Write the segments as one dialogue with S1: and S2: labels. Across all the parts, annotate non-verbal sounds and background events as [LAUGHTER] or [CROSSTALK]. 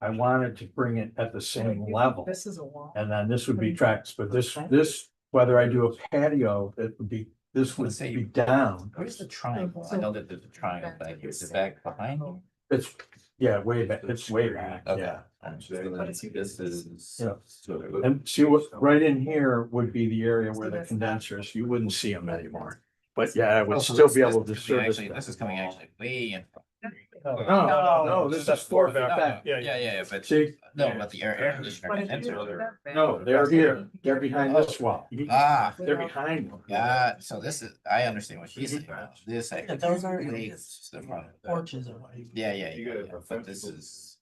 S1: I wanted to bring it at the same level.
S2: This is a wall.
S1: And then this would be tracks, but this, this, whether I do a patio, it would be, this would
S3: Say you-
S1: be down.
S3: Where's the triangle? I
S2: So-
S3: know that there's a triangle back here. Is it back behind? you?
S1: It's, yeah, way back, it's way back,
S3: Okay.
S1: yeah.
S3: So then This is.
S1: Yeah.
S3: So-
S1: And see what, right in here would be the area where
S2: So
S1: the
S2: that's-
S1: condensers, you wouldn't see them anymore. But yeah, I
S3: Oh,
S1: would
S3: so
S1: still
S3: this-
S1: be able to
S3: this is coming
S1: service.
S3: actually-
S1: that.
S3: This is coming actually way in. front.
S1: No, Oh, no, no, no, this is four back, back,
S3: Yeah,
S1: yeah,
S3: yeah, yeah, but
S1: See,
S3: no, but the air, air conditioner.
S2: But if you do
S3: condenser.
S2: that,
S1: no, they're here, they're behind this wall.
S3: Ah,
S1: They're behind. one.
S3: yeah, so this is, I understand what she's saying. now. This.
S4: Yeah, those are-
S3: actually is the front of that.
S4: Porches or what?
S3: Yeah, yeah,
S5: You
S3: yeah,
S5: gotta
S3: yeah, but this
S5: prevent-
S3: is,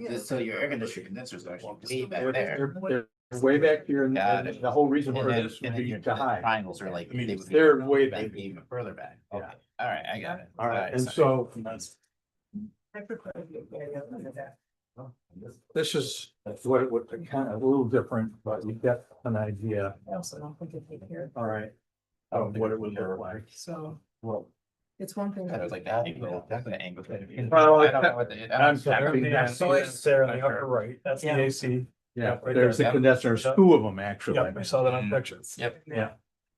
S2: Yeah.
S3: this, so your air conditioner condenser is actually way back
S1: They're-
S3: there.
S1: They're they're way back here and
S3: Got
S1: and
S3: it.
S1: the whole reason
S3: And
S1: for
S3: then,
S1: this would
S3: and then
S1: be
S3: your
S1: to hide.
S3: triangles are like.
S1: I mean,
S3: they would be-
S1: they're way back.
S3: They'd be even further back.
S1: Yeah.
S3: Okay, all right, I got it.
S1: All right, and
S3: sorry.
S1: so
S2: I prefer to do patio than that.
S1: this is what it would, kind of a little different, but you get an idea
S2: I also don't think it could here,
S1: All right. Of what it would look like.
S2: so
S1: Well,
S2: it's one thing.
S3: Kind of like the angle, the angle.
S1: Well,
S3: I don't know what the- I don't-
S6: I'm sorry,
S3: Yeah,
S6: yeah,
S3: so it's-
S6: there in the upper right, that's the
S4: Yeah.
S6: AC.
S1: yeah,
S6: right
S1: there's the
S3: there.
S1: condensers, two of them actually.
S6: Yeah, I saw that on pictures.
S3: Yep,
S1: Yeah.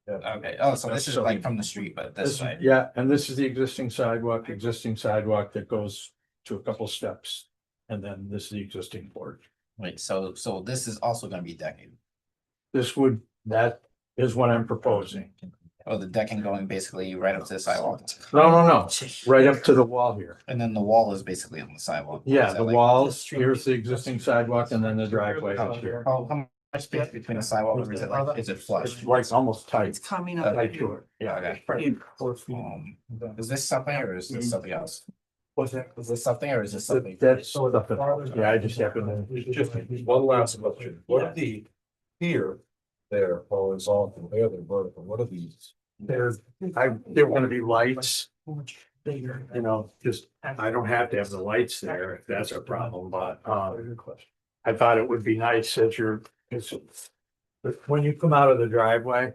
S3: okay, oh, so this is like from the street, but
S1: This
S3: this
S1: is-
S3: way.
S1: Yeah, and this is the existing sidewalk, existing sidewalk that goes to a couple steps. And then this is the existing porch.
S3: Wait, so, so this is also gonna be decking.
S1: This would, that is what I'm proposing.
S3: Oh, the decking going basically right up to the sidewalk.
S1: No, no, no, right up to the wall here.
S3: And then the wall is basically on the sidewalk.
S1: Yeah,
S3: Is that
S1: the
S3: like-
S1: walls, here's the existing sidewalk and then the driveway out here.
S3: How, Oh, how much space between the sidewalk, or is it like, is it flush?
S1: It's like almost tight.
S4: It's coming
S3: Uh,
S4: up.
S1: Tight to it, yeah.
S3: Okay. Um, Is this something or is
S6: Mm-hmm.
S3: this something else?
S6: What's that?
S3: Is this something or is this something?
S1: That's stuff that- yeah, I just happened to.
S5: It's Just one last question, what are the, here, there, horizontal, there, they're vertical, what are these?
S1: There's, I, there wanna be lights,
S4: Much bigger.
S1: you know, just, I don't have to have the lights there if that's a problem, but, um. I thought it would be nice that you're, it's. But when you come out of the driveway,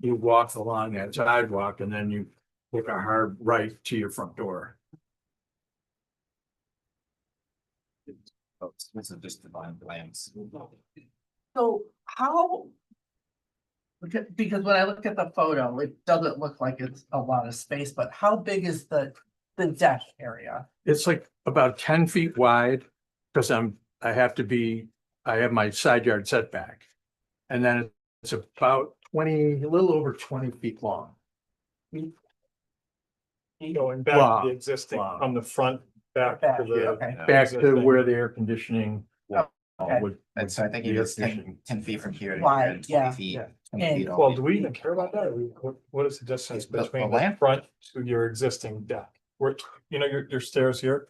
S1: you walk along that sidewalk and then you take a hard right to your front door.
S3: Oh, This is just divine plans.
S4: So how? Because, because when I look at the photo, it doesn't look like it's a lot of space, but how big is the, the deck area?
S1: It's like about ten feet wide, because I'm, I have to be, I have my side yard setback. And then it's about twenty, a little over twenty feet long.
S6: Going back
S1: Wow.
S6: to the existing,
S1: Wow.
S6: from the front back
S4: Back,
S6: to the,
S4: Okay,
S1: Back to where the air conditioning. wall
S4: okay.
S1: would-
S3: And so I think it
S1: The air
S3: is ten,
S1: conditioning.
S3: ten feet from here to here
S4: Wide,
S3: and
S4: yeah,
S3: twenty feet.
S6: yeah.
S3: 20
S4: And-
S3: feet all
S6: well,
S3: the
S6: do
S3: way.
S6: we even care about that? Or we- What, what is the distance
S3: The- the
S6: between the
S3: lamp?
S6: front to your existing deck? Where, you know, your, your stairs here?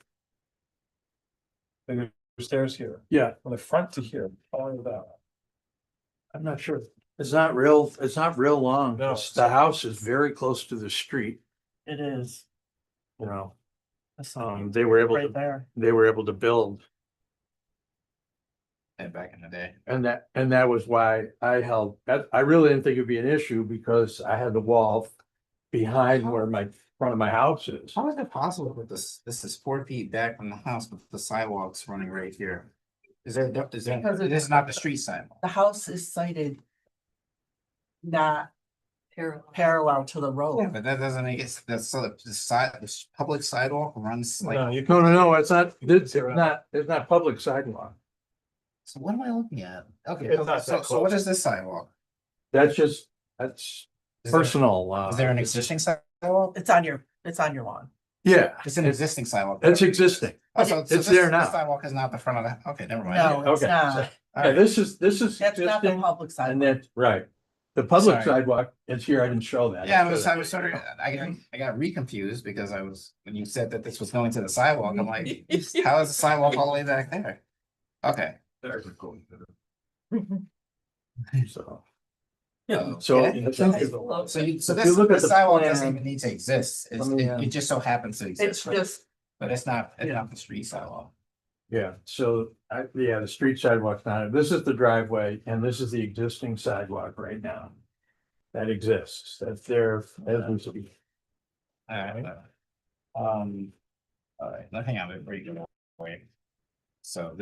S6: And your stairs here,
S1: Yeah,
S6: from the front to here, all of that.
S1: I'm not sure. It's not real, it's not real long.
S6: No.
S1: It's- The house is very close to the street,
S4: it is.
S1: you know,
S4: It's
S1: um, they were able,
S4: Right
S1: to
S4: there.
S1: they were able to build.
S3: And back in the day.
S1: And that, and that was why I held, that, I really didn't think it'd be an issue because I had the wall
S3: Oh.
S1: behind where my, front of my house is.
S3: How is it possible with this, this is four feet back from the house, but the sidewalk's running right here? Is there, no- is there,
S4: Because
S3: it
S4: it's-
S3: is not the street sidewalk.
S4: The house is sited. Not parallel to the road.
S3: But that doesn't make it, that's so the side, the public sidewalk runs
S6: No,
S3: like,
S6: you can,
S1: No, no, no, it's not, it's
S6: Zero.
S1: not, it's not public sidewalk.
S3: so what am I looking at? Okay,
S6: It's not
S3: so,
S6: that
S3: so what
S6: close.
S3: is this sidewalk?
S1: That's just, that's
S3: Is there-
S1: personal. uh,
S3: Is there an existing sidewalk?
S4: It's on your, it's on your lawn.
S1: Yeah,
S3: It's an existing sidewalk.
S1: it's existing.
S3: Oh, so- so
S1: it's
S3: this-
S1: there
S3: this
S1: now.
S3: Sidewalk is not the front of the, okay, never mind.
S4: No, it's
S1: Okay.
S4: not.
S3: All
S1: Yeah,
S3: right.
S1: this is, this is
S4: That's not the
S1: existing
S4: public
S1: and
S4: side.
S1: that's right. The public
S3: Sorry.
S1: sidewalk, it's here. I didn't show that.
S3: Yeah, I was, I was sort of, I got, I got reconfused because I was, when you said that this was going to the sidewalk,
S2: [LAUGHS]
S3: I'm like, how is the sidewalk all the way back there? Okay.
S1: So,
S3: Yeah.
S1: so
S3: Okay.
S1: I think-
S3: So you, so
S1: If you
S3: this,
S1: look at
S3: this
S1: the
S3: sidewalk doesn't
S1: plan-
S3: even need to exist, it's,
S1: Let me,
S3: it,
S1: um,
S3: it just so happens to
S4: It's
S3: exist, right?
S4: just,
S3: But it's not, it's
S1: Yeah.
S3: not the street sidewalk.
S1: yeah, so I, yeah, the street sidewalk's not, this is the driveway and this is the existing sidewalk right now. That exists, that's there as we speak.
S3: Alright. Um, alright, now hang on, wait, wait, wait. So